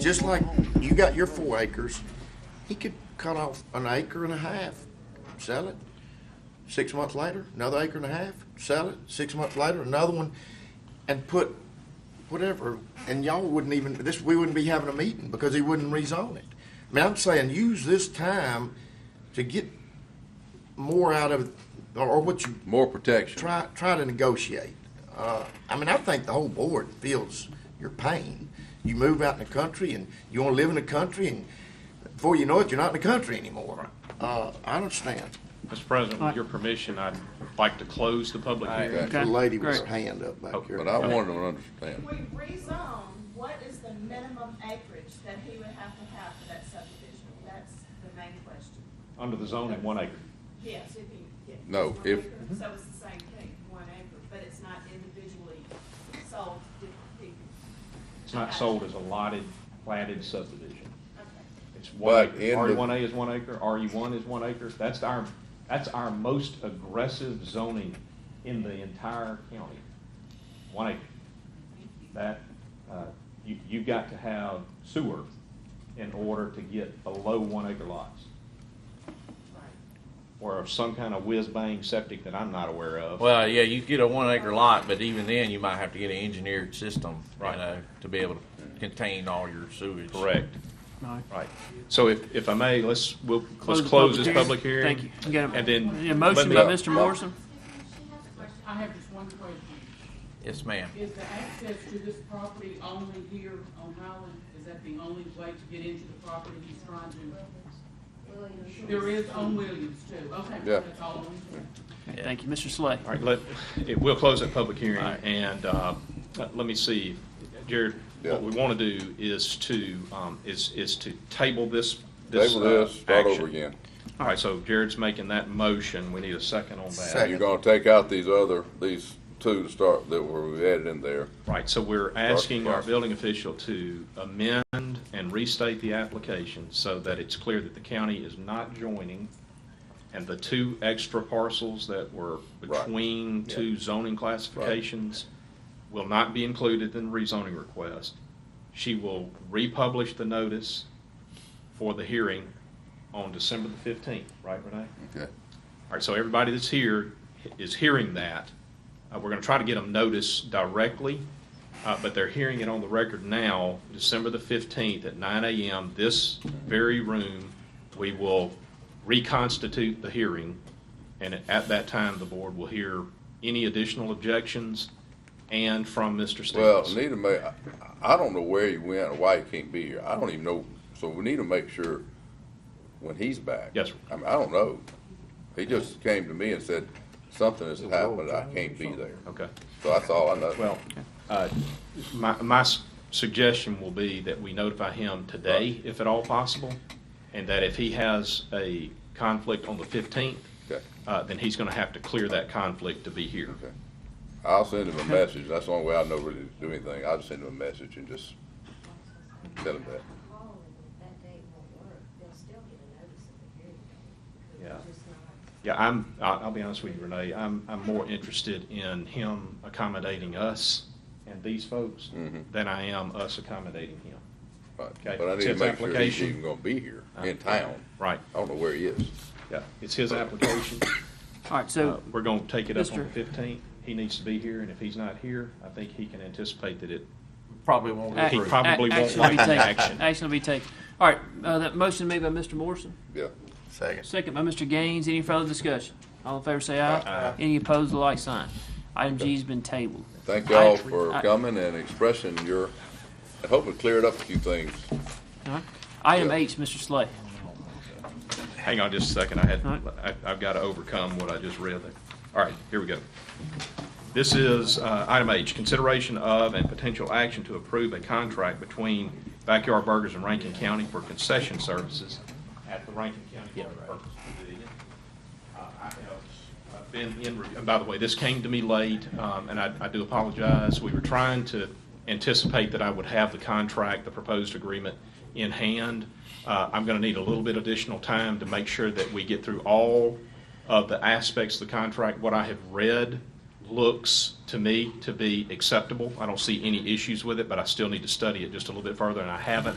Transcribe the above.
Just like you got your four acres, he could cut off an acre and a half, sell it. Six months later, another acre and a half, sell it. Six months later, another one, and put whatever. And y'all wouldn't even this. We wouldn't be having a meeting because he wouldn't rezone it. I mean, I'm saying use this time to get more out of or or what you More protection. try try to negotiate. Uh, I mean, I think the whole board feels your pain. You move out in the country and you want to live in the country, and before you know it, you're not in the country anymore. Uh, I understand. Mr. President, with your permission, I'd like to close the public I- hearing. The Okay, lady with her great. hand up back here. Oh, But I want. wanted them to understand. we rezone, um, what is the minimum acreage that he would have to have for that subdivision? That's the main question. Under the zoning, one acre. Yes, if he, yeah. No, One if- acre, So it's the same thing, one acre, but it's not individually sold to different people. It's not sold as a lotted, platted subdivision. Okay. It's one But acre. in the- RE1A is one acre, RE1 is one acre. That's our, that's our most aggressive zoning in the entire county. One acre. That, uh, you, you've got to have sewer in order to get below one acre lots. Or some kind of whiz-bang septic that I'm not aware of. Well, yeah, you get a one acre lot, but even then, you might have to get an engineered system, you Right. know, to be able to contain all your sewage. Correct. No. Right. So if, if I may, let's, we'll, let's Close the close this public hearing. Thank you. you. got a- And then. A motion by let me- Mr. Morrison? I have just one question. Yes, ma'am. Is the access to this property only here on Howland? Is that the only way to get into the property he's trying to? There is on Williams too. Okay. Yeah. That's all. Okay, Thank you, Mr. Slay. All right, let, it- we'll close that public hearing, and uh, let let me see, Jared, what we want to do is to, um, is, is to table this, this Table this, uh, start over action. again. All right, so Jared's making that motion, we need a second on that. Second. You're gonna take out these other, these two to start that were added in there. Right, so we're asking our Start. building official to amend and restate the application so that it's clear that the county is not joining, and the two extra parcels that were Right. between Yeah. two zoning classifications will not be included in the rezoning request. She will republish the notice for the hearing on December the fifteenth, right, Renee? Okay. All right, so everybody that's here is hearing that. Uh, we're gonna try to get them notice directly, uh, but they're hearing it on the record now, December the fifteenth at nine AM, this very room. We will reconstitute the hearing, and at- at that time, the board will hear any additional objections and from Mr. Well, Stevens. need to make, I- I don't know where he went or why he can't be here. I don't even know, so we need to make sure when he's back. Yes, sir. I mean, I don't know. He just came to me and said, something has happened, I can't be there. Okay. So that's all I know. Well, uh, my, my s- suggestion will be that we notify him today, if at all possible, and that if he has a conflict on the 15th, Okay. uh, then he's going to have to clear that conflict to be here. Okay. I'll send him a message. That's the only way I know really to do anything. I'll just send him a message and just tell him that. call and if that date won't work, they'll still get a notice of the hearing date. because Yeah. it's just not- Yeah, I'm, I- I'll be honest with you, Renee, I'm, I'm more interested in him accommodating us and these folks Mhm. than I am us accommodating him. Right. Okay. But I need to Tips make sure he's application. even gonna be here in Uh, town. Right, I don't know where he is. yeah, it's his application. All right, Uh, so, We're going to take it up on Mr. the 15th. He needs to be here, and if he's not here, I think he can anticipate that it, Probably won't ac- Uh, he approve. probably won't ac- action will be like the taken. action. Action will be taken. All right, uh, that motion made by Mr. Morrison, Yeah. Second. second by Mr. Gaines. Any further discussion? All in favor, say aye. Any opposed, the like sign. Item G's been tabled. Thank I- y'all for I- coming and expressing your, I hope it cleared up a few things. All right. Item H, Mr. Slay. hang on just a second, I had, All right. I- I've got to overcome what I just read. there. All right, here we go. This is uh, item H, consideration of and potential action to approve a contract between Backyard Burgers and Rankin County for concession services at the Rankin County Public Purpose Pavilion. Uh, I have uh, been in, re- and by the way, this came to me late, um, and I I do apologize. We were trying to anticipate that I would have the contract, the proposed agreement in hand. Uh, I'm going to need a little bit additional time to make sure that we get through all of the aspects of the contract. What I have read looks to me to be acceptable. I don't see any issues with it, but I still need to study it just a little bit further, and I haven't